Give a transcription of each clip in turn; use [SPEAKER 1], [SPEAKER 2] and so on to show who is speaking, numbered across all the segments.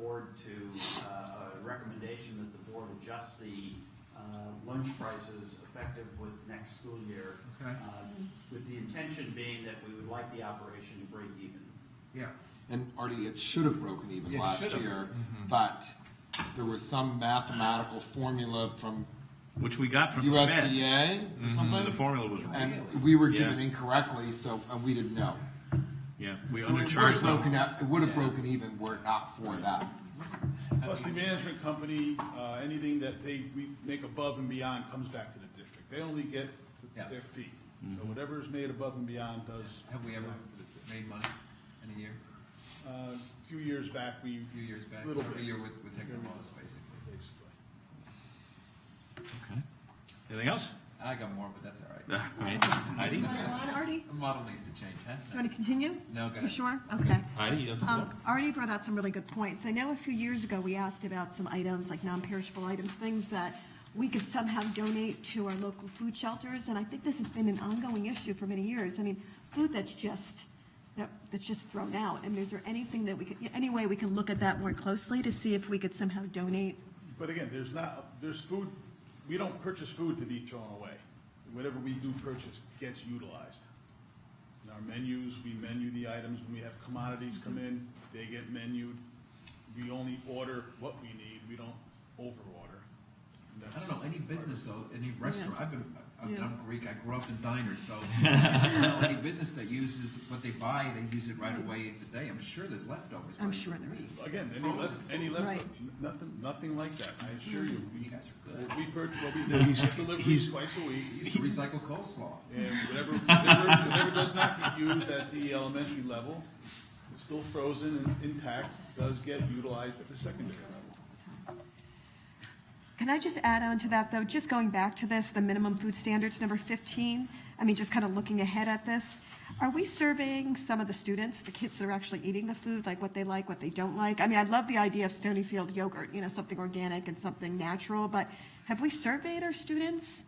[SPEAKER 1] board to, uh, a recommendation that the board adjust the uh, lunch prices effective with next school year.
[SPEAKER 2] Okay.
[SPEAKER 1] uh, With the intention being that we would like the operation to break even.
[SPEAKER 2] Yeah,
[SPEAKER 3] And Artie, it should have broken even
[SPEAKER 2] It
[SPEAKER 3] last
[SPEAKER 2] should have.
[SPEAKER 3] year,
[SPEAKER 4] Mm-hmm.
[SPEAKER 3] but there was some mathematical formula from
[SPEAKER 4] Which we got from the feds.
[SPEAKER 3] USDA or
[SPEAKER 4] And the
[SPEAKER 3] something,
[SPEAKER 4] formula was wrong.
[SPEAKER 3] uh, and we were given
[SPEAKER 4] Yeah.
[SPEAKER 3] incorrectly, so, and we didn't know.
[SPEAKER 4] Yeah, we
[SPEAKER 3] So it would have
[SPEAKER 4] undercharged
[SPEAKER 3] broken
[SPEAKER 4] them.
[SPEAKER 3] up, it would have broken even were it not for that.
[SPEAKER 5] Plus the management company, uh, anything that they, we make above and beyond comes back to the district. They only get
[SPEAKER 2] Yeah. Mm-hmm.
[SPEAKER 5] their fee. So whatever is made above and beyond does.
[SPEAKER 2] have we ever made money in a year,
[SPEAKER 5] Uh, A few years back, we,
[SPEAKER 2] a few years back,
[SPEAKER 5] Little
[SPEAKER 2] every
[SPEAKER 5] bit.
[SPEAKER 2] year with, with taking a loss, basically.
[SPEAKER 5] basically.
[SPEAKER 4] Okay. Anything else? Uh,
[SPEAKER 2] And I got more, but that's all right.
[SPEAKER 4] Right. Heidi?
[SPEAKER 6] Come on, Artie,
[SPEAKER 2] The model needs to change, huh?
[SPEAKER 6] do you want to continue?
[SPEAKER 2] No, go
[SPEAKER 6] You
[SPEAKER 2] ahead.
[SPEAKER 6] sure? Okay.
[SPEAKER 4] Heidi, you have the floor.
[SPEAKER 6] Um, Artie brought out some really good points. I know a few years ago, we asked about some items, like non-perishable items, things that we could somehow donate to our local food shelters, and I think this has been an ongoing issue for many years. I mean, food that's just, that, that's just thrown out, I mean, is there anything that we could, any way we can look at that more closely to see if we could somehow donate?
[SPEAKER 5] But again, there's not, there's food, we don't purchase food to be thrown away. Whatever we do purchase gets utilized. In our menus, we menu the items, when we have commodities come in, they get menued. We only order what we need, we don't overorder. And
[SPEAKER 2] I
[SPEAKER 5] that's-
[SPEAKER 2] don't know, any business though, any restaurant, I've been, I- I'm,
[SPEAKER 6] Yeah.
[SPEAKER 2] I'm Greek, I grew up in diners, so. I don't know Any business that uses what they buy, they use it right away in the day, I'm sure there's leftovers.
[SPEAKER 6] I'm
[SPEAKER 2] right?
[SPEAKER 6] sure there is.
[SPEAKER 5] Again, any left, any left,
[SPEAKER 6] Right.
[SPEAKER 5] nothing, nothing like that, I assure you.
[SPEAKER 2] You guys are good.
[SPEAKER 5] What We purchase, what we do, we get deliveries
[SPEAKER 7] he's-
[SPEAKER 5] twice a
[SPEAKER 2] We
[SPEAKER 5] week,
[SPEAKER 2] used to recycle coleslaw.
[SPEAKER 5] and whatever, whatever, whatever does not get used at the elementary level, still frozen and intact, does get utilized at the secondary level.
[SPEAKER 6] Can I just add on to that, though? Just going back to this, the minimum food standards, number 15, I mean, just kind of looking ahead at this, are we surveying some of the students, the kids that are actually eating the food, like what they like, what they don't like? I mean, I love the idea of Stonyfield yogurt, you know, something organic and something natural, but have we surveyed our students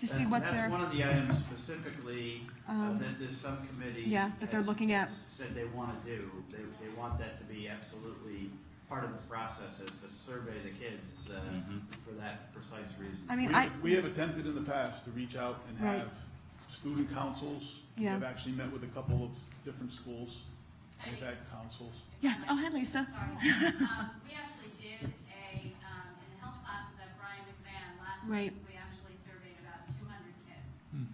[SPEAKER 6] to see what
[SPEAKER 1] That's one
[SPEAKER 6] they're, Um,
[SPEAKER 1] of the items specifically uh, that this subcommittee.
[SPEAKER 6] yeah, that they're
[SPEAKER 1] has-
[SPEAKER 6] looking at.
[SPEAKER 1] Said they want to do. They, they want that to be absolutely part of the process is to survey the kids uh, for that precise reason.
[SPEAKER 6] I
[SPEAKER 5] We
[SPEAKER 6] mean, I,
[SPEAKER 5] have, we have attempted in the past to reach out and
[SPEAKER 6] Right.
[SPEAKER 5] have student councils. We
[SPEAKER 6] Yeah.
[SPEAKER 5] have actually met with a couple of different schools, we've had councils.
[SPEAKER 6] yes, oh, hi, Lisa.
[SPEAKER 8] Sorry. Um, We actually did a, um, in the health classes at Brian McMahon last
[SPEAKER 6] Right.
[SPEAKER 8] week, we actually surveyed about two hundred kids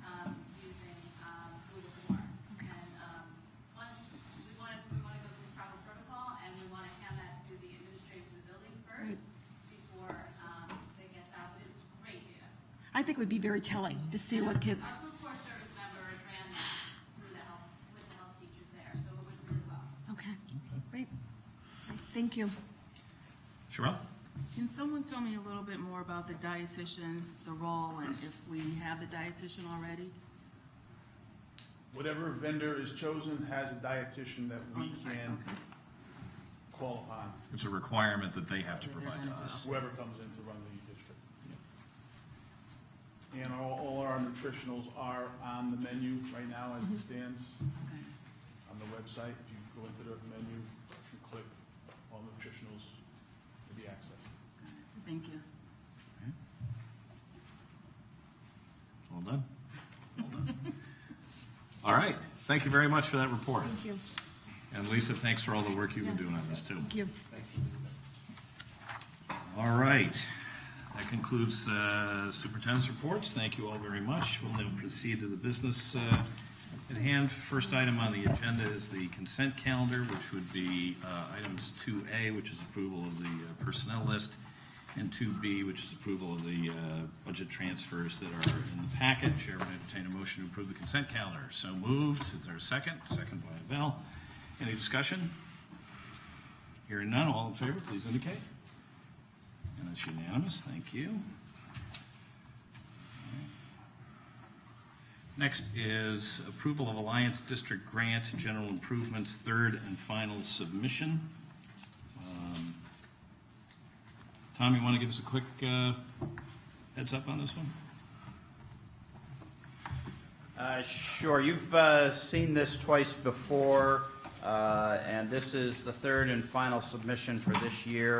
[SPEAKER 8] um, using um, Google Forms. And um, once, we want to, we want to go through proper protocol, and we want to hand that to the administrators of the building first before um, it gets out, but it's great data.
[SPEAKER 6] I think it would be very telling to see what kids,
[SPEAKER 8] Our Blue Cross service member ran that through the health, with the health teachers there, so it went really well.
[SPEAKER 6] okay, great. Thank you.
[SPEAKER 4] Sherelle?
[SPEAKER 9] Can someone tell me a little bit more about the dietitian, the role, and if we have the dietitian already?
[SPEAKER 5] Whatever vendor is chosen has a dietitian that we
[SPEAKER 9] Okay,
[SPEAKER 5] can
[SPEAKER 9] okay.
[SPEAKER 5] call upon,
[SPEAKER 4] It's a requirement that they have to provide Uh, to us.
[SPEAKER 5] whoever comes in to run the district. And all, all our nutritionals are on the menu right now
[SPEAKER 9] Mm-hmm.
[SPEAKER 5] as it stands,
[SPEAKER 9] Okay.
[SPEAKER 5] on the website. If you go into the menu, you click all nutritionals to be accessed.
[SPEAKER 9] Thank you.
[SPEAKER 4] Well done. Well done. All right. Thank you very much for that report.
[SPEAKER 6] Thank you.
[SPEAKER 4] And Lisa, thanks for all the work you've been doing on this too.
[SPEAKER 6] Thank you.
[SPEAKER 4] All right. That concludes uh, superintendent's reports. Thank you all very much. We'll now proceed to the business uh, at hand. First item on the agenda is the consent calendar, which would be uh, items 2A, which is approval of the uh, personnel list, and 2B, which is approval of the uh, budget transfers that are in the packet. Chair would entertain a motion to approve the consent calendar. So moved. Is there a second? Second by Val. Any discussion? Hearing none, all in favor, please indicate. And that's unanimous, thank you. Next is approval of Alliance District Grant General Improvements Third and Final Submission. Um, Tom, you want to give us a quick uh, heads up on this one?
[SPEAKER 1] Uh, Sure, you've uh, seen this twice before, uh, and this is the third and final submission for this year.